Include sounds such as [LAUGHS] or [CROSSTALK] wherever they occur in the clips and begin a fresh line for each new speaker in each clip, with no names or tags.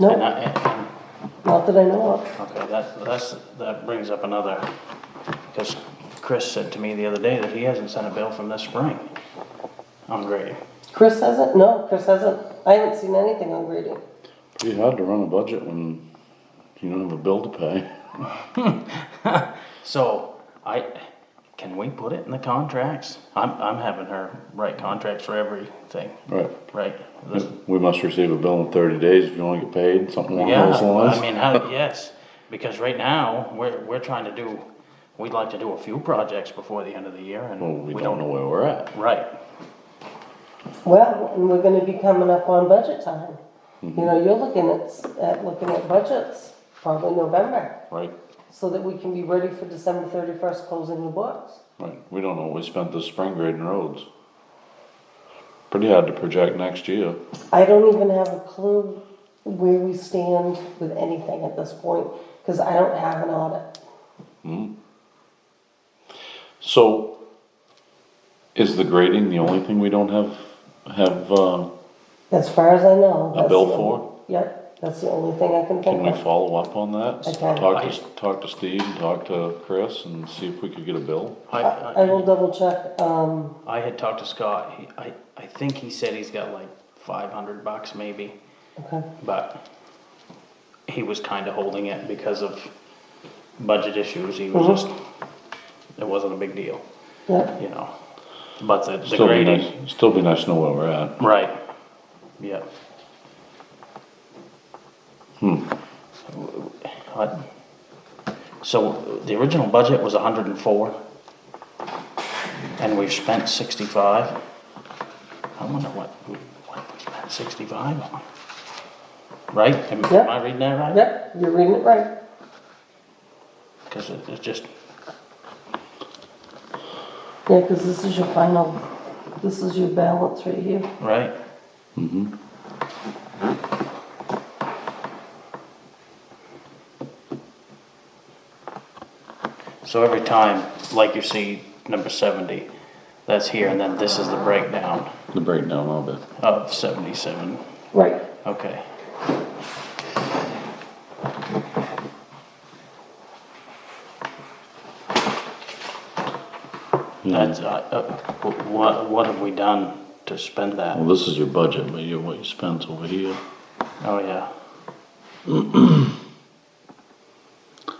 No.
And I- and-
Not that I know of.
Okay, that, that's, that brings up another, because Chris said to me the other day that he hasn't sent a bill from this spring on grading.
Chris hasn't? No, Chris hasn't. I haven't seen anything on grading.
Pretty hard to run a budget when you don't have a bill to pay.
So I, can we put it in the contracts? I'm, I'm having her write contracts for everything,
Right.
[LAUGHS] right? The-
We must receive a bill in thirty days if you wanna get paid, something along
Yeah,
those
I
lines.
mean, how, yes, because right now, we're, we're trying to do, we'd like to do a few projects before the end of the year
Well,
and
we don't know where we're at.
Right,
Well, and we're gonna be coming up on budget time.
Mm-hmm.
You know, you're looking at, s- at looking at budgets, probably November,
Right,
so that we can be ready for December thirty-first closing the books.
right. We don't know what we spent this spring grading roads. Pretty hard to project next year.
I don't even have a clue where we stand with anything at this point, cause I don't have an audit.
So, is the grading the only thing we don't have, have, uh,
As far as I know.
A
that's
bill
the only-
for?
Yep, that's the only thing I can
can we
think of.
follow up on that?
Okay.
Talk to, talk to Steve, and talk to Chris and see if we could get a bill?
I,
I I
I,
will double check, um,
I had talked to Scott, he, I, I think he said he's got like five hundred bucks maybe,
okay,
but he was kinda holding it because of budget issues, he was just, it wasn't a big deal,
yep,
you know, but the, the
Still be
grading,
nice, still be nice to know where we're at.
right, yeah. Hmm. So, the original budget was hundred and four, and we've spent sixty-five. I wonder what, what we spent sixty-five on, right? Am am I reading that right?
yep, you're reading it right.
Cause it- it's just,
Yeah, cause this is your final, this is your balance right here.
right, so every time, like you see number seventy, that's here, and then this is the breakdown
The breakdown of it.
of seventy-seven,
Right.
okay. That's, uh, uh, wh- what, what have we done to spend that?
Well, this is your budget, but you, what you spent's over here.
Oh, yeah. [CLEARS THROAT]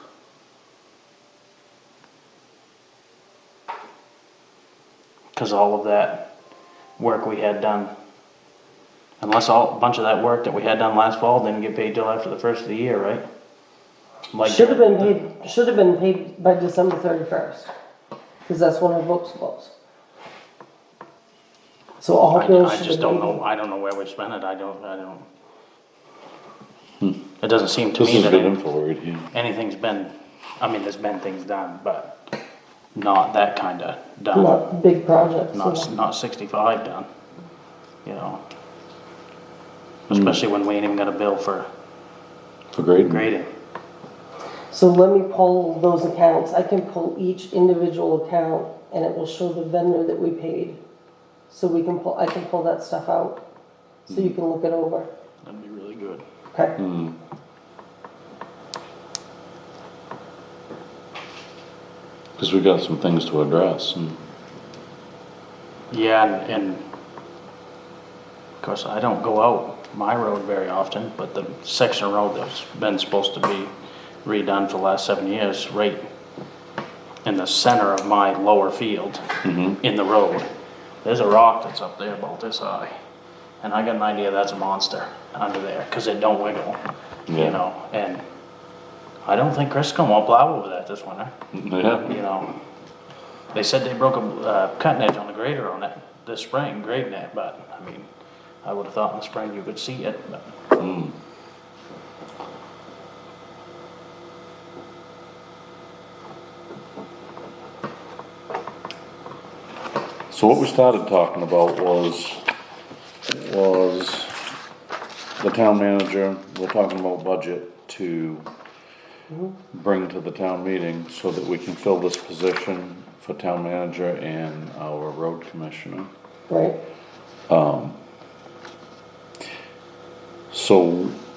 Cause all of that work we had done, unless all, a bunch of that work that we had done last fall didn't get paid till after the first of the year, right? Like-
Should have been paid, should have been paid by December thirty-first, cause that's when our books close. So all
I,
bills
I
should have been.
just don't know, I don't know where we spent it, I don't, I don't. It doesn't seem to
Hmm. This
me
is
that
good
it-
info right here.
anything's been, I mean, there's been things done, but not that kinda done,
Not big projects.
not,
yeah.
not sixty-five done, you know? Especially when we ain't even got a bill for
For grading.
grading.
So let me pull those accounts, I can pull each individual account, and it will show the vendor that we paid. So we can pull, I can pull that stuff out, so
Hmm.
you can look it over,
That'd be really good.
okay?
Hmm.
Cause we got some things to address and
Yeah, and, and of course, I don't go out my road very often, but the section of road that's been supposed to be redone for the last seven years, right in the center of my lower field, in the road, there's a rock that's up there about this high. And I got an idea that's a monster under there, cause it don't wiggle,
Yeah.
you know, and I don't think Chris gonna want plow over that this winter
yeah,
you know, they said they broke a uh, cutting edge on the grader on it this spring, grading it, but, I mean, I would've thought in the spring you could see it, but.
so what we started talking about was, was the town manager, we're talking about budget to bring to the town meeting so that we can fill this position for town manager and our road commissioner.
Right,
So